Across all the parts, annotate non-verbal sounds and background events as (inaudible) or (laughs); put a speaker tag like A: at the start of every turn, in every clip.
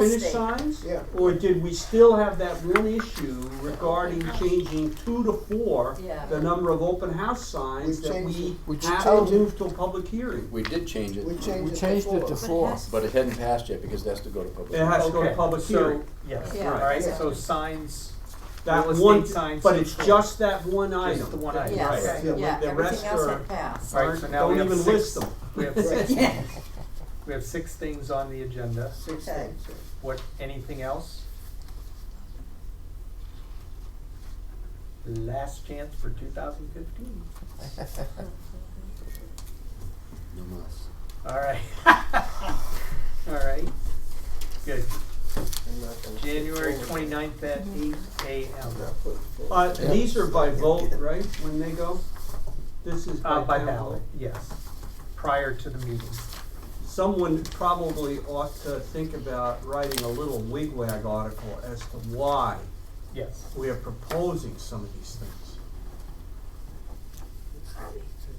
A: Finish
B: state.
A: signs?
C: Yeah.
A: Or did we still have that real issue regarding changing two to four,
B: Yeah.
A: the number of open house signs
C: We
A: that
C: changed
A: we
C: it. We
A: have to
C: changed it.
A: move to a public hearing?
D: We did change it,
C: We
E: We
C: changed it
E: changed it to
C: before.
E: four.
D: but it hadn't passed yet because it has to go to public.
A: It has to go to
F: Okay,
A: public
F: so,
A: hearing.
F: yes,
B: Yeah.
F: alright,
C: Yeah.
F: so signs,
A: That
F: real estate
A: one,
F: signs
A: but
F: to
A: it's
F: four.
A: just that one item.
F: just the one
A: Right.
F: item,
B: Yes,
C: Yeah,
B: yeah,
A: the rest
B: everything else
A: are-
B: had passed.
F: Alright, so now we
A: Don't
F: have
A: even
F: six.
A: list them.
F: We have
B: (laughs)
F: six,
B: Yeah.
F: we have six things on the agenda,
C: Six
B: Okay.
C: things, yeah.
F: what, anything else? Last chance for two thousand fifteen,
D: No mas.
F: (laughs) alright. Alright, good,
C: I'm not gonna-
F: January
C: Forward. Mm-hmm.
F: twenty-ninth at eight AM.
C: Not put forward.
A: Uh,
D: Yeah.
A: these are by vote, right, when they go? This is
F: Uh, by
A: town
F: ballot,
A: vote.
F: yes, prior to the meeting.
A: Someone probably ought to think about writing a little wigwag article as to why
F: Yes.
A: we are proposing some of these things.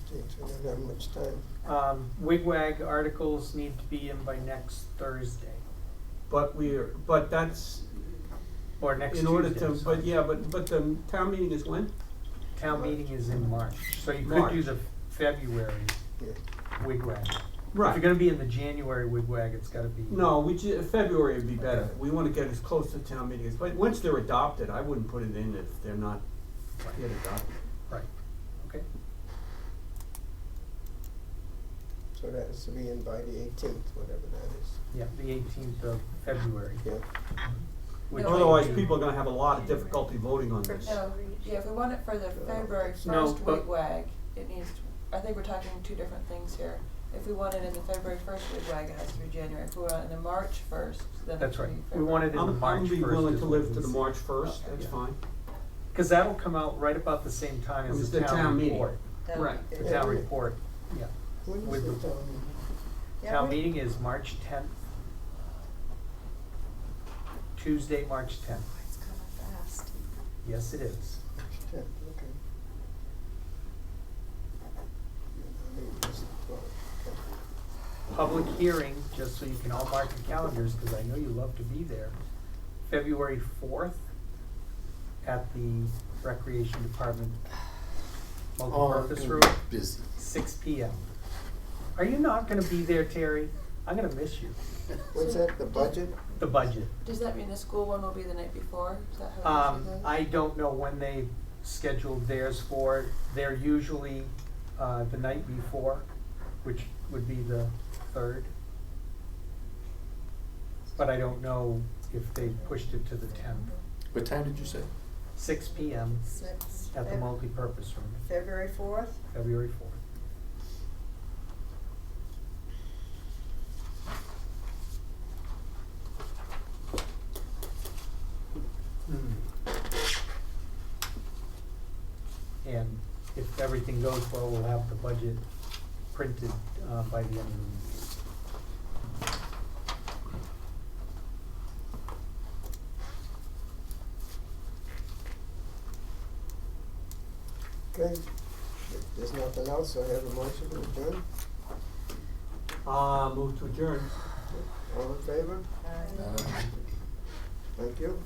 C: Fifteen, so not that much time.
F: Um, wigwag articles need to be in by next Thursday,
A: But we are, but that's,
F: or next
A: in order
F: Tuesday,
A: to,
F: sorry.
A: but yeah, but, but the town meeting is when?
F: Town meeting is in March, so you could do
A: March.
F: the February
C: Yeah.
F: wigwag. If you're
A: Right,
F: gonna be in the January wigwag, it's gotta be.
A: no, we ju- February would be better, we wanna get as close to town meeting as, but once they're adopted, I wouldn't put it in if they're not yet adopted.
F: Right, okay,
C: So that has to be in by the eighteenth, whatever that is.
F: yeah, the eighteenth of February.
C: Yeah.
F: which
B: No,
A: Otherwise,
F: would be-
A: people are gonna have a lot of difficulty voting on
B: For-
A: this.
B: No, yeah, if we want it for the February
F: No,
B: first
F: but-
B: wigwag, it needs, to- I think we're talking two different things here. If we want it in the February first wigwag, it has to be January. If we want it in the March first, then it
F: That's
B: should
F: right,
B: be February.
F: we want it in the
A: I'm, I'm
F: March first.
A: be willing
F: is
A: to
F: what
A: live to
F: we
A: the
F: said.
A: March first,
B: Okay.
A: that's
F: Yeah.
A: fine.
F: Cause that'll come out right about the same time
A: It's
F: as the
A: the
F: town
A: town meeting.
F: report,
B: That would be
A: Right.
B: good.
F: the
C: Yeah.
F: town report, yeah.
C: When is
F: With
C: the
F: the-
C: town meeting?
B: Yeah,
F: Town
B: we-
F: meeting is March tenth. Tuesday, March tenth.
G: It's coming fast.
F: Yes, it is.
C: Tenth, okay. I mean, it's the twelfth, okay.
F: Public hearing, just so you can all mark your calendars, because I know you love to be there. February fourth at the Recreation Department
D: Oh,
F: multipurpose room,
D: Busy.
F: six P M. Are you not gonna be there, Terry? I'm gonna miss you.
C: What's that, the budget?
F: The budget.
B: Does that mean the school one will be the night before? Is that how
F: Um,
B: this is?
F: I don't know when they scheduled theirs for, they're usually, uh, the night before, which would be the third. But I don't know if they pushed it to the tenth,
D: What time did you say?
F: six P M
G: Six.
F: at the
G: Feb-
F: multipurpose room,
G: February fourth?
F: February fourth. Hmm. And if everything goes well, we'll have the budget printed uh, by the end of the meeting.
C: Okay, If there's nothing else, I have a motion to adjourn,
A: Uh, move to adjourn.
C: all in favor?
G: Uh,
D: Uh,
C: Thank you.